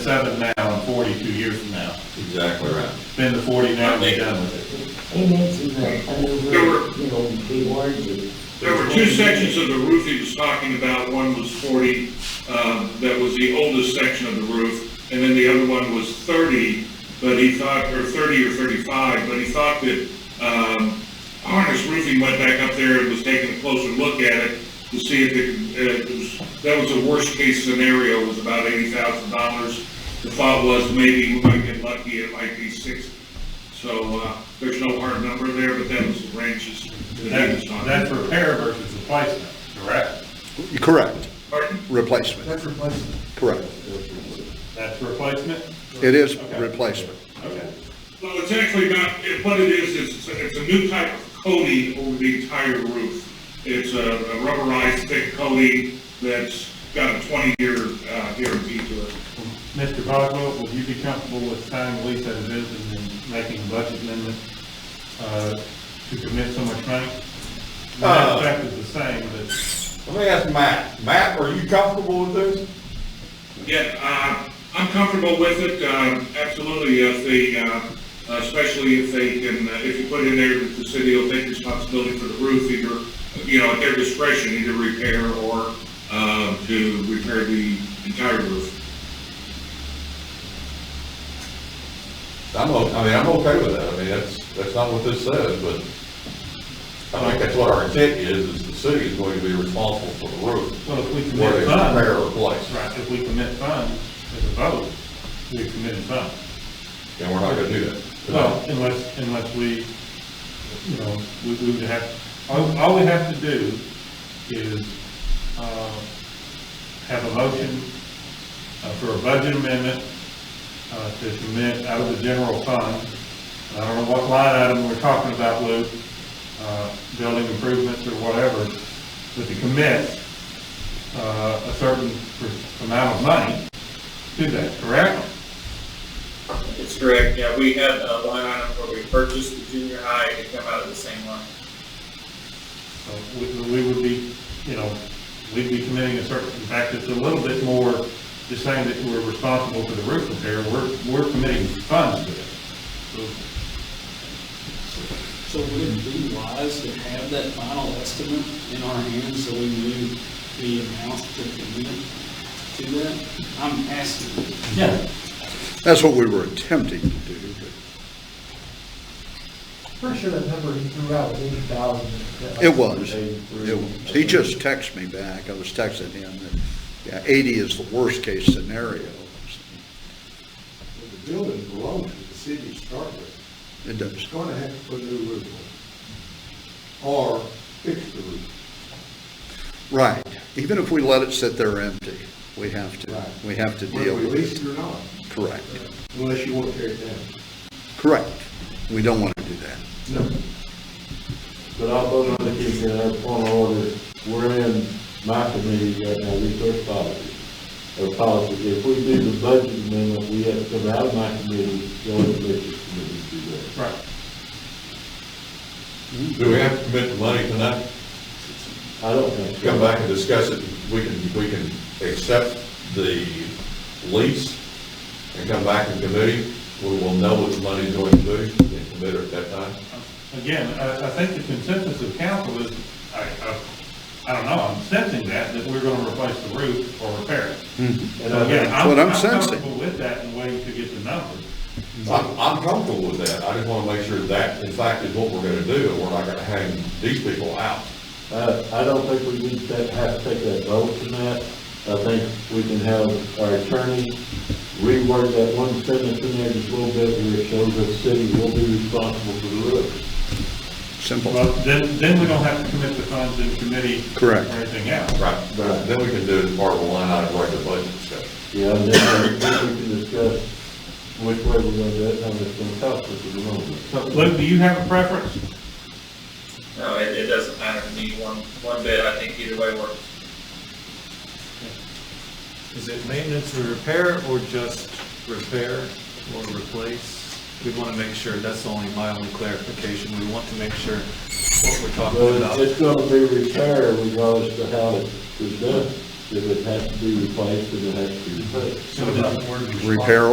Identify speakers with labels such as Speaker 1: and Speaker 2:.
Speaker 1: seven now and forty-two years from now.
Speaker 2: Exactly right.
Speaker 1: Spend the forty now and be done with it.
Speaker 3: He made some, uh, I mean,
Speaker 4: There were-
Speaker 3: you know, be warranted.
Speaker 4: There were two sections of the roof he was talking about. One was 40, um, that was the oldest section of the roof, and then the other one was 30, but he thought, or 30 or 35, but he thought that um, harness roofing went back up there and was taking a closer look at it to see if it, uh, it was, that was the worst-case scenario, was about $80,000. The thought was maybe we might get lucky, it might be 60. So uh, there's no hard number there, but that was the ranges that he was
Speaker 1: That-
Speaker 4: talking about.
Speaker 1: That's repair versus replacement, correct?
Speaker 5: Correct,
Speaker 4: Pardon?
Speaker 5: replacement,
Speaker 6: That's replacement.
Speaker 5: correct.
Speaker 1: That's replacement?
Speaker 5: It is replacement.
Speaker 1: Okay.
Speaker 4: Well, it's actually not, it- what it is, is it's a- it's a new type of coating over the entire roof. It's a a rubberized thick coating that's got a 20-year uh, guarantee to it.
Speaker 1: Mr. Boswell, would you be comfortable with signing the lease as it is and then making a budget amendment, uh, to commit so much money? The net
Speaker 2: Uh.
Speaker 1: effect is the same, but
Speaker 2: Let me ask Matt, Matt, are you comfortable with this?
Speaker 4: Yeah, uh, I'm comfortable with it, uh, absolutely, if they, uh, especially if they can, uh, if you put in there that the city will take responsibility for the roof, either, you know, at their discretion, either repair or uh, to repair the entire roof.
Speaker 2: I'm, o- I mean, I'm okay with that, I mean, that's, that's not what this says, but I think that's what our intent is, is the city is going to be responsible for the roof.
Speaker 1: well, if we commit
Speaker 2: Whether it's repair
Speaker 1: funds,
Speaker 2: or replace,
Speaker 1: right, if we commit funds as a vote, we committed funds.
Speaker 2: and we're not gonna do that.
Speaker 1: Well, unless, unless we, you know, we we would have, all, all we have to do is, uh, have a motion uh, for a budget amendment, uh, to commit out of the general fund. I don't know what line item we're talking about, Lou, uh, building improvements or whatever, but to commit, uh, a certain per- amount of money to that, correct?
Speaker 7: It's correct, yeah, we had a line item where we purchased the junior high, it come out of the same line.
Speaker 1: So Uh, we, we would be, you know, we'd be committing a certain, in fact, it's a little bit more, just saying that we're responsible for the roof repair, we're, we're committing funds to it. So
Speaker 8: So would it be wise to have that final estimate in our hands so we knew the amount to commit to that? I'm asking.
Speaker 1: Yeah.
Speaker 5: That's what we were attempting to do,
Speaker 6: Pretty sure that number he threw out was eighty thousand.
Speaker 5: but it was. It was. He just texted me back, I was texting him, and, yeah, eighty is the worst-case scenario.
Speaker 6: The building belongs to the city to start with.
Speaker 5: It does.
Speaker 6: It's gonna have to put a new roof on. Or fix the roof.
Speaker 5: Right, even if we let it sit there empty, we have to,
Speaker 6: Right.
Speaker 5: we have to deal
Speaker 6: Whether we lease
Speaker 5: with
Speaker 6: it
Speaker 5: it.
Speaker 6: or not,
Speaker 5: Correct,
Speaker 6: unless you want to tear it down.
Speaker 5: correct. We don't want to do that.
Speaker 9: No. But I'll vote on the case in our point of order. We're in my committee right now, resource policy, or policy. If we do the budget amendment, we have to come out of my committee, go to the budget committee to do that.
Speaker 1: Right.
Speaker 2: Do we have to commit the money tonight?
Speaker 9: I don't think so.
Speaker 2: Come back and discuss it, we can, we can accept the lease and come back in committee, we will know what the money's going to be and commit it at that time.
Speaker 1: Again, I, I think the consensus of council is, I, I, I don't know, I'm sensing that, that we're gonna replace the roof or repair it.
Speaker 9: And
Speaker 1: So
Speaker 9: I
Speaker 1: again,
Speaker 9: think-
Speaker 5: Mm-hmm. That's what I'm
Speaker 1: I'm
Speaker 5: sensing.
Speaker 1: comfortable with that and waiting to get the numbers.
Speaker 2: I'm, I'm comfortable with that, I just want to make sure that, in fact, is what we're going to do, and we're not going to hang these people out.
Speaker 9: Uh, I don't think we need to have to take that vote tonight. I think we can have our attorney reword that one sentence in there just a little bit where it shows that the city will be responsible for the roof.
Speaker 5: Simple.
Speaker 1: Well, then, then we don't have to commit the funds in committee.
Speaker 5: Correct.
Speaker 1: Or anything else.
Speaker 2: Right. Then we can do it as part of the line item regular budget discussion.
Speaker 9: Yeah, and then we we can discuss which way we're gonna do it, how much it's gonna cost us at the
Speaker 1: So
Speaker 9: moment.
Speaker 1: Lou, do you have a preference?
Speaker 7: No, it, it doesn't matter to me one, one bit, I think either way works.
Speaker 10: Is it maintenance and repair or just repair or replace? We want to make sure, that's only my only clarification, we want to make sure what we're talking
Speaker 9: Well,
Speaker 10: about.
Speaker 9: it's- it's gonna be repair regardless of how it was done. if it has to be replaced, then it has to be replaced.
Speaker 5: Repair